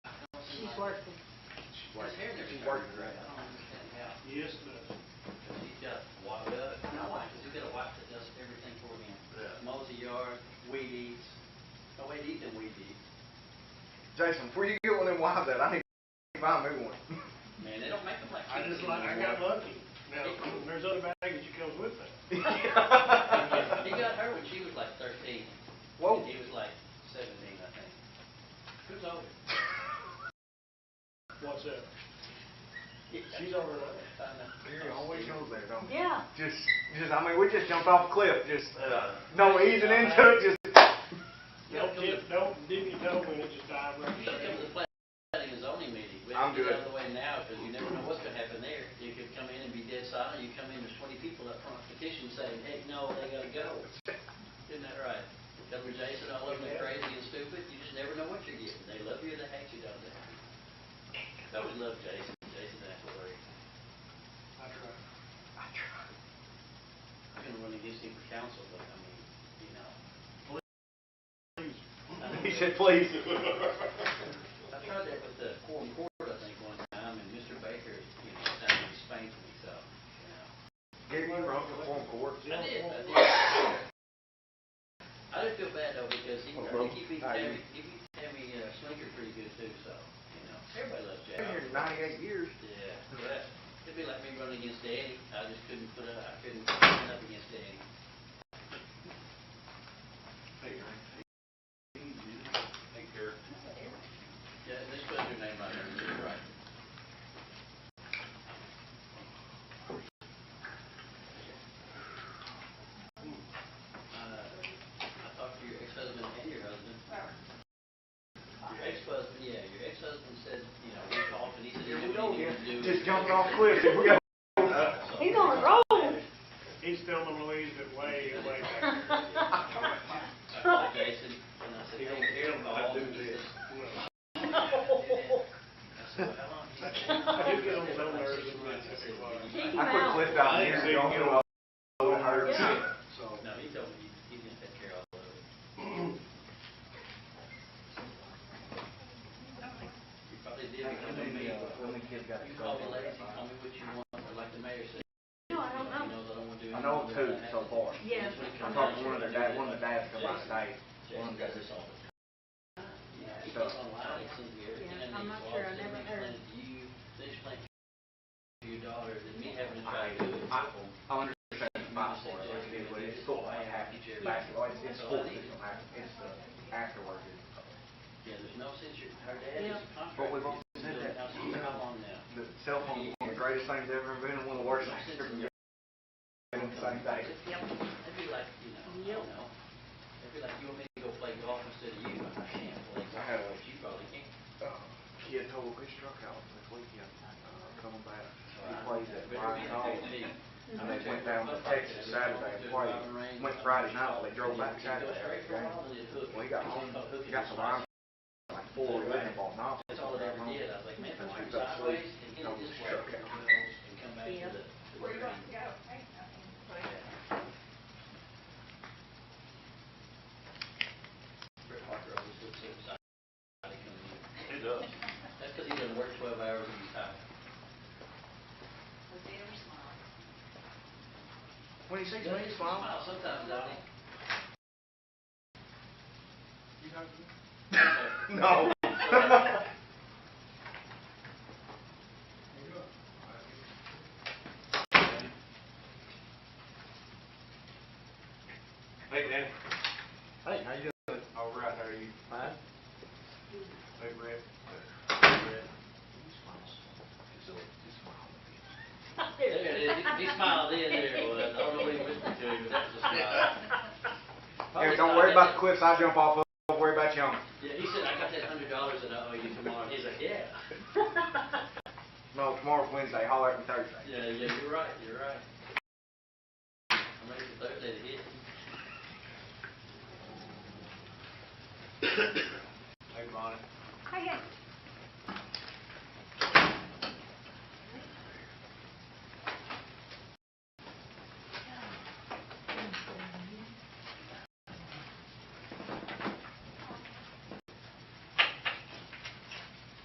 working. She His worked- hair never. she got worked rid of right. it. I don't understand how. Yes, but Cause he's got wife, uh, not wife, cause he's got a wife that does everything for him. Yeah. Mows the yard, weed eats. Oh wait, he done weed eat. Jason, before you get one of them wives out, I need to buy me one. Man, they don't make them like. I just kids like, I anymore. got lucky. Now, there's other baggage that comes with that. He got her when she was like thirteen. Whoa. And he was like seventeen, I think. Who's older? What's that? She's She's over there. I know. It always goes there, don't it? Yeah. Just, just, I mean, we just jumped off a cliff, just, uh, no easing into it, just Don't dip, don't dip your toe in it, just dive right You should come to the straight. planning and zoning meeting. We have I'm to get good. out of the way now, because you never know what's gonna happen there. You could come in and be dead silent, you come in, there's twenty people up front petition saying, hey, no, they gotta go. Isn't that right? Governor Jason, all of them are crazy and stupid, you just never know what you're getting. They love you or they hate you, don't they? I always love Jason, Jason's absolutely, I tried. I'm gonna run against him for council, but I mean, you know. He said, please. I tried that with the quorum court, I think, one time, and Mr. Baker, you know, that was spanked me, so, you know. Gary, you run for form court. I did, I did. I did feel bad though, because he, I think he beat Tammy, he beat Tammy, uh, Slinker pretty good too, so, you know, everybody loves Jack. Been here ninety-eight years. Yeah, yeah. It'd be like me running against Eddie. I just couldn't put it, I couldn't stand up against Eddie. Yeah, just put your name on there, right. Uh, I talked to your ex-husband and your husband. Your ex-husband, yeah, your ex-husband said, you know, we talked and he said, Here he we go didn't again, even do. just jumping off cliffs, here we go. He's on a roll. He's filming Louise, but way, way back. I called Jason and I said, hey, here, I'll do this. I said, well, how long? He said, I do get on his own "Like nerves six and months." I said, "Well, you Kick him I quit out. cliff diving years ago, I feel all hurt. Yeah. So, No, he told me he- he's gonna take care of all of it. You probably did become a mayor before. You call the ladies, you tell me what you want, but like the mayor said. No, I don't know. He knows I don't wanna do. I know two so far. Yes. I talked to one of the dads, one of the dads come out today, one Jason of them does this all the time. Yeah, he So- goes online, he sends me everything. Yeah, I I'm need not to sure, I watch, never and heard. then You, they explain to your daughter, than me having to try I, to do it. I, I understand my part, like, it was, it's school, I have, basketball, it's, it's sports, it's, it's uh, afterward. Yeah, there's no sense, your, her dad is Yeah. a contractor. But we've all He's said been that. doing house for How long now? The cell phone is one of the greatest things ever invented, one of the worst things ever invented, on the same day. It'd be like, you know, I don't know. It'd be like, you want me to go play golf instead of you? I can't play I had golf, one. but you probably can. Uh, Kid totally struck out this weekend, uh, coming back, So he I- plays that's at better Ryan than Hall. me. And they went down to Texas Saturday and played, went Friday night, they drove back Saturday. Well, he got home, he got some lines, like four, eleven ball knocks. That's all it ever did. I was like, man, if I went sideways and hit it this way, and come back to the. to the green. Brett Parker always looks so excited coming in. It does. That's because he doesn't work twelve hours and he's tired. When he sees me, he smiles. Well, sometimes, Donnie. No. Hey, Dan. Hey, how you doing? All right, how are you? Fine. Hey, Brett. There it is. He- He smiled in there. it was. I don't know what he whispered to him, but that was a smile. Hey, don't worry about the cliffs I jump off of, don't worry about you. Yeah, he said, I got that hundred dollars that I owe you tomorrow. He's like, yeah. No, tomorrow's Wednesday, holler at me Thursday. Yeah, yeah, you're right, you're right. I'm ready for Thursday to hit.